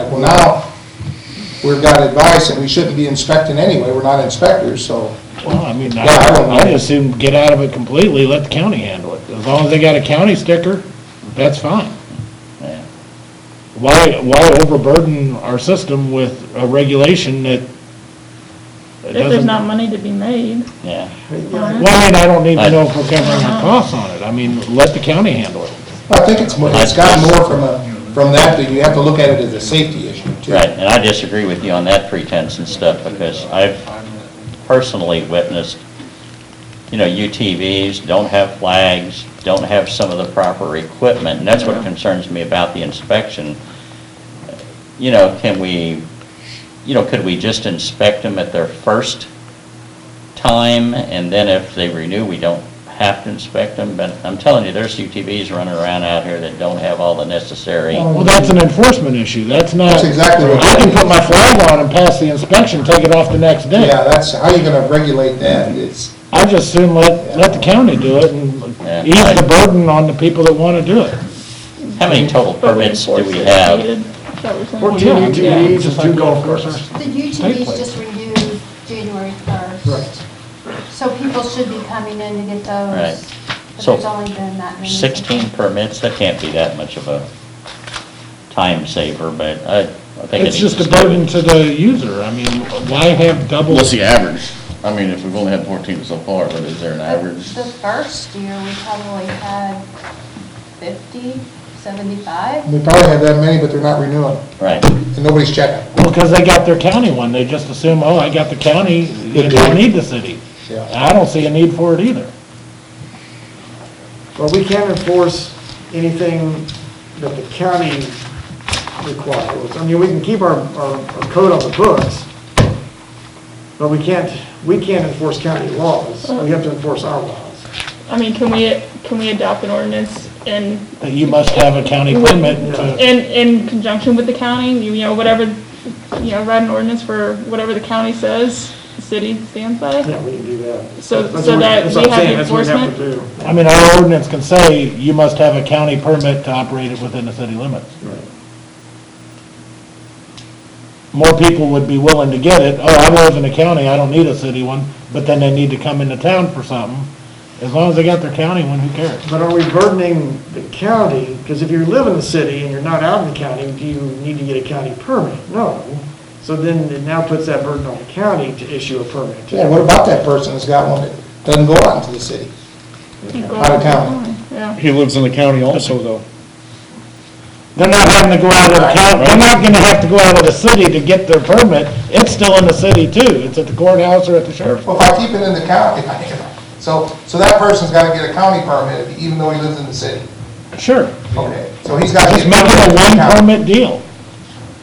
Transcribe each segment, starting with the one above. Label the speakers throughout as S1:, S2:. S1: And well, now, we've got advice that we shouldn't be inspecting anyway, we're not inspectors, so.
S2: Well, I mean, I,
S1: Yeah, I don't
S2: I
S1: know.
S2: just assume get out of it completely, let the county handle it. As long as they got a county sticker, that's fine. Why, why overburden our system with a regulation that it
S3: If there's
S2: doesn't?
S3: not money to be made.
S4: Yeah,
S2: Well, I mean, I don't need to know if we're covering our costs on it. I mean, let the county handle it.
S1: I think it's, more- it's got more from a, from that, that you have to look at it as a safety issue too.
S4: right, and I disagree with you on that pretense and stuff, because I've personally witnessed, you know, UTVs don't have flags, don't have some of the proper equipment, and that's what concerns me about the inspection. You know, can we, you know, could we just inspect them at their first time, and then if they renew, we don't have to inspect them? But I'm telling you, there's UTVs running around out here that don't have all the necessary.
S2: Well, that's an enforcement issue, that's not.
S1: That's exactly what-
S2: I can put my flag on and pass the inspection, take it off the next day.
S1: Yeah, that's, how you gonna regulate that? It's,
S2: I just assume let, let the county do it and
S4: Yeah.
S2: ease the burden on the people that wanna do it.
S4: How many total permits do we have?
S3: Fourteen
S2: UTVs and two golf courses.
S5: The UTVs just renewed January 1st. So people should be coming in to get those.
S4: Right.
S5: But
S4: So,
S5: there's only been that many.
S4: 16 permits, that can't be that much of a time saver, but I, I think it
S2: It's
S4: needs
S2: just
S4: to
S2: a
S4: stay
S2: burden
S4: with-
S2: to the user, I mean, why have double?
S6: What's the average? I mean, if we've only had fourteen so far, but is there an average?
S5: The first year, we probably had 50, 75.
S1: we probably have that many, but they're not renewing,
S4: Right,
S1: and nobody's checking.
S2: Well, cause they got their county one, they just assume, oh, I got the county, you don't need the city.
S1: Yeah.
S2: I don't see a need for it either.
S7: Well, we can't enforce anything that the county requires. I mean, we can keep our, our our code on the books, but we can't, we can't enforce county laws. We have to enforce our laws.
S3: Uh, I mean, can we, can we adopt an ordinance and,
S2: You must have a county permit to,
S3: in, in conjunction with the county, you know, whatever, you know, write an ordinance for whatever the county says, the city stands by?
S7: Yeah, we can do that.
S3: So-
S7: That's
S3: so
S7: what-
S3: that
S7: that's
S3: we
S7: what I'm
S3: have
S7: saying, that's what we have to do.
S2: I mean, our ordinance can say, you must have a county permit to operate it within the city limits. more people would be willing to get it, oh, I live in the county, I don't need a city one, but then they need to come into town for something. As long as they got their county one, who cares?
S7: But are we burdening the county? Because if you live in the city and you're not out in the county, do you need to get a county permit? No. So then it now puts that burden on the county to issue a permit.
S1: Yeah, what about that person that's got one that doesn't go out into the city? Out of town.
S3: Yeah.
S8: He lives in the county also, though.
S2: They're not having to go out of the county, they're not gonna have to go out of the city to get their permit, it's still in the city too, it's at the courthouse or at the sheriff's.
S1: Well, if I keep it in the county, I can- so, so that person's gotta get a county permit, even though he lives in the city.
S2: Sure,
S1: Okay, so he's gotta get.
S2: just make it a one
S1: Yeah.
S2: permit deal.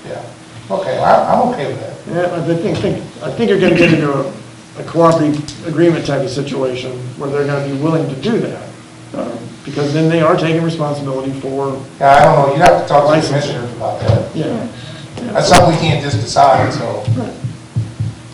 S1: Yeah, okay, I, I'm okay with that.
S7: Yeah, I think, think- I think you're gonna get into a a cooperative agreement type of situation where they're gonna be willing to do that. um, Because then they are taking responsibility for,
S1: Yeah, I don't know, you'd have to talk to the commissioners about that.
S7: yeah.
S1: That's something we can't just decide, so.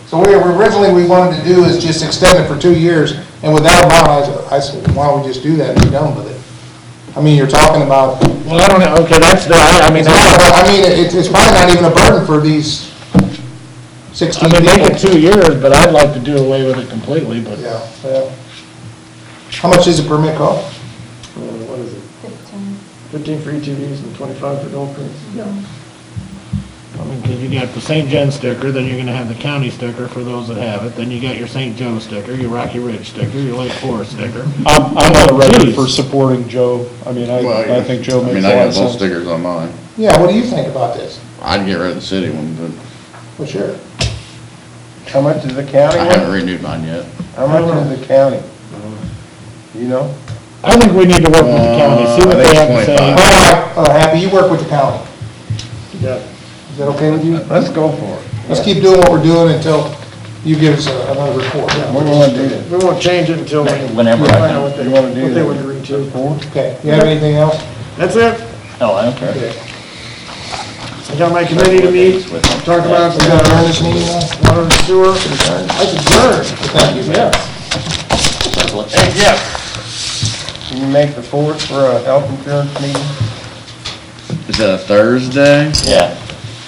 S1: So we, originally, we wanted to do is just extend it for two years, and with that amount, I said- I said, why don't we just do that and be done with it? I mean, you're talking about,
S2: Well, I don't know, okay, that's the, I I mean, that's-
S1: I mean, it's, it's probably not even a burden for these
S2: I
S1: sixteen
S2: mean, make it
S1: people.
S2: two years, but I'd like to do away with it completely, but.
S1: Yeah, yeah. How much is a permit cost?
S7: uh, What is it,
S5: 15.
S7: 15 for ETVs and 25 for golf carts?
S2: I mean, 'cause you got the St. John sticker, then you're gonna have the county sticker for those that have it, then you got your St. Joe sticker, your Rocky Ridge sticker, your Lake Forest sticker.
S8: I'm, I'm on the record
S2: Jeez.
S8: for supporting Joe. I mean, I, I think Joe
S6: I
S8: makes
S6: mean,
S8: a
S6: I
S8: lot of
S6: got both
S8: sense.
S6: stickers on mine.
S1: Yeah, what do you think about this?
S6: I'd get rid of the city one, but
S1: For sure.
S9: How much is the county
S6: I
S9: one?
S6: haven't renewed mine yet.
S9: How much is the county? You know?
S2: I think we need to work with the county, see what
S6: Uh,
S2: they
S6: I think
S2: have to
S1: All
S2: say.
S1: right,
S6: twenty-five.
S1: uh, Happy, you work with the county.
S7: Yeah.
S1: Is that okay with you?
S9: Let's go for it.
S1: Let's keep doing what we're doing until you give us a- another report.
S9: We're gonna do this.
S7: We won't change it until we find
S4: whenever I
S7: out
S4: can.
S7: what they,
S9: You wanna
S7: what
S9: do
S7: they would
S9: that?
S7: agree to.
S9: Four?
S1: Okay, you have anything else?
S7: That's it.
S4: oh, I don't care.
S7: I got my committee to meet, talk about
S1: We gotta earn
S7: the
S1: this meeting now?
S7: water and sewer. That's adjourned.
S1: Thank you, man.
S9: Hey, Jeff. Can you make the fourth for a health insurance meeting?
S6: Is that a Thursday?
S4: Yeah,